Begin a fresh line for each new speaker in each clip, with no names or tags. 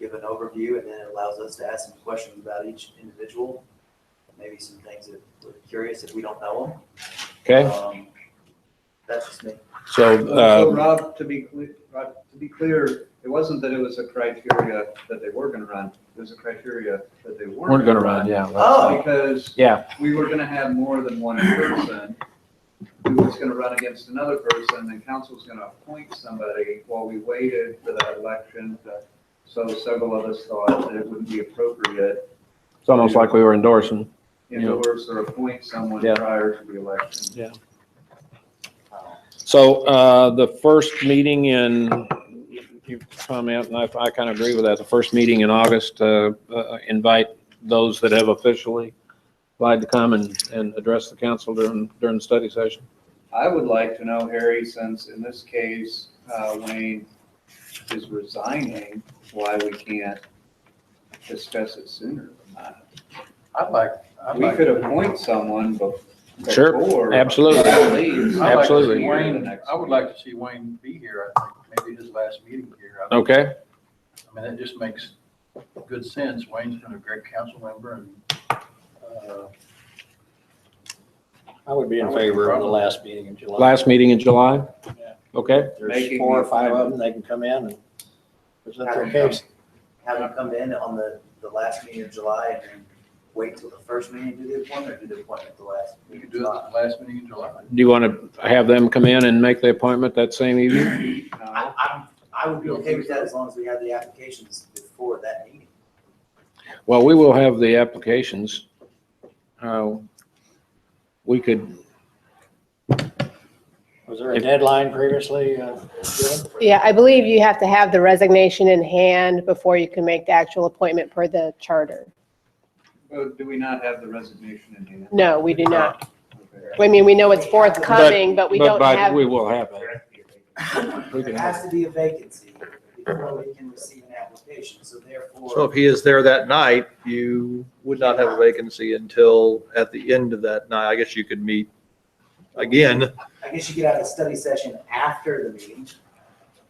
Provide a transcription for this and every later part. an overview, and then it allows us to ask some questions about each individual. Maybe some things that we're curious if we don't know them.
Okay,
Um, That's just me.
so,
So
um,
Rob, to be, cle- Rob, to be clear, it wasn't that it was a criteria that they were gonna run, it was a criteria that they
we're
weren't.
gonna run, yeah. well,
Oh.
Because
Yeah,
we were gonna have more than one person who was gonna run against another person, and council's gonna appoint somebody while we waited for that election. to- So several of us thought that it wouldn't be appropriate
it's almost like we were endorsing.
to
Yeah.
endorse or appoint someone
Yeah.
prior to the election.
So uh, the first meeting in, you comment, and I I kind of agree with that, the first meeting in August, uh, uh, invite those that have officially applied to come and, and address the council during, during the study session.
I would like to know, Harry, since in this case, uh, Wayne is resigning, why we can't discuss it sooner.
I'd like, I'd
We
like,
could appoint someone bef-
Sure,
before.
absolutely.
he leaves.
I'd like to
Absolutely.
see Wayne, I would
like
like to see Wayne be here, I think, maybe his last meeting here. I think-
Okay,
I mean, that just makes good sense. Wayne's been a great council member and, uh,
I would be in favor of the last meeting in July.
last meeting in July? Okay,
If There's four or five of them, they can come in and present their case.
Have them come in on the, the last meeting of July and then wait till the first meeting to do the appointment, or do the appointment at the last
we
meeting Uh,
could
of
do it at
July?
the last meeting in July.
do you want to have them come in and make the appointment that same evening?
I, I'm, I would be okay with that as long as we have the applications before that meeting.
Well, we will have the applications. Uh, We could,
Was there a deadline previously uh, given?
Yeah, I believe you have to have the resignation in hand before you can make the actual appointment per the charter.
Do we not have the resignation in hand?
No, we do not.
Okay.
I mean, we know it's forthcoming, but we
but-
don't
but
have,
We will have it. We can
There
have
has to be a vacancy before we can receive an application, so
So
therefore,
if he is there that night, you would not have a vacancy until at the end of that night. I guess you could meet again,
I guess you could have a study session after the meeting.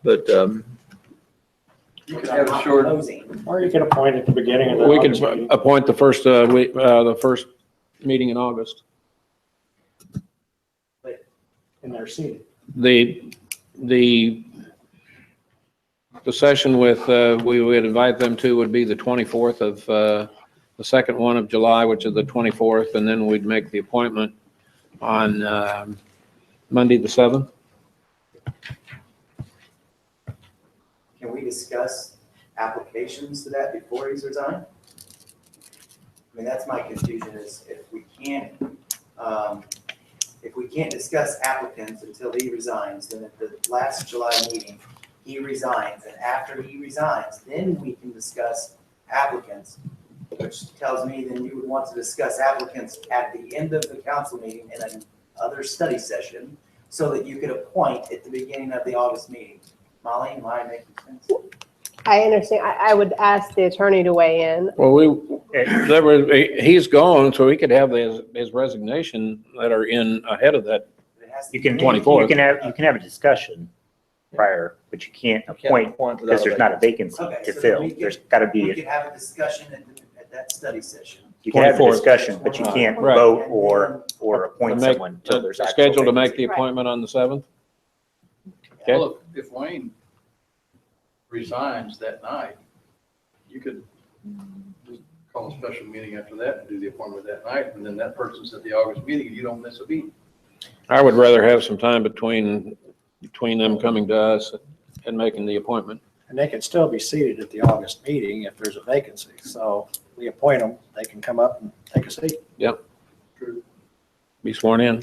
but, um,
You could have a short,
Closing.
Or you can appoint at the beginning of the.
We can
August meeting.
appoint the first, uh, we, uh, the first meeting in August.
And they're seated.
The, the, the session with, uh, we would invite them to would be the 24th of, uh, the second one of July, which is the 24th, and then we'd make the appointment on, um, Monday, the 7th.
Can we discuss applications to that before he's resigned? I mean, that's my confusion is if we can't, um, if we can't discuss applicants until he resigns, then at the last July meeting, he resigns, and after he resigns, then we can discuss applicants, which tells me then you would want to discuss applicants at the end of the council meeting in another study session so that you could appoint at the beginning of the August meeting. Molly, am I making sense?
I understand, I, I would ask the attorney to weigh in.
Well, we, there was, he's gone, so we could have his, his resignation letter in ahead of that.
It has to
You
be
can,
made.
24th.
you can have, you can have a discussion prior, but you can't appoint
point
because there's not a vacancy
Okay,
to
so
fill.
we can-
There's got to
We
be,
could have a discussion at, the- at that study session.
you can have a
24th.
discussion, but you can't
Right.
vote or, or appoint
To make-
someone until there's actual
Scheduled to make
vacancy.
the appointment on the 7th? Okay.
well, if if Wayne resigns that night, you could just call a special meeting after that and do the appointment that night, and then that person's at the August meeting, and you don't miss a beat.
I would rather have some time between, between them coming to us and making the appointment.
And they can still be seated at the August meeting if there's a vacancy. So we appoint them, they can come up and take a seat.
Be sworn in.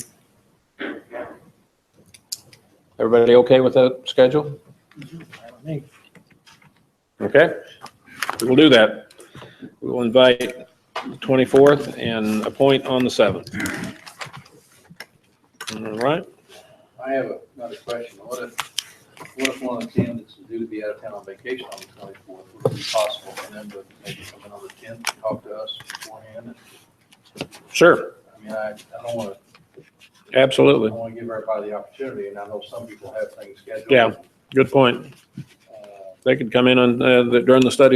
Everybody okay with that schedule?
I don't think-
Okay, we'll do that. We will invite the 24th and appoint on the 7th. All right,
I have a- another question. What if, what if one of the candidates is due to be out of town on vacation on the twenty-fourth? Would it be possible for them to maybe come in on the tenth and talk to us beforehand?
sure,
I mean, I, I don't want to, I
absolutely.
want to give everybody the opportunity, and I know some people have things scheduled.
Yeah. Good point.
Uh,
They could come in on, uh, the- during the study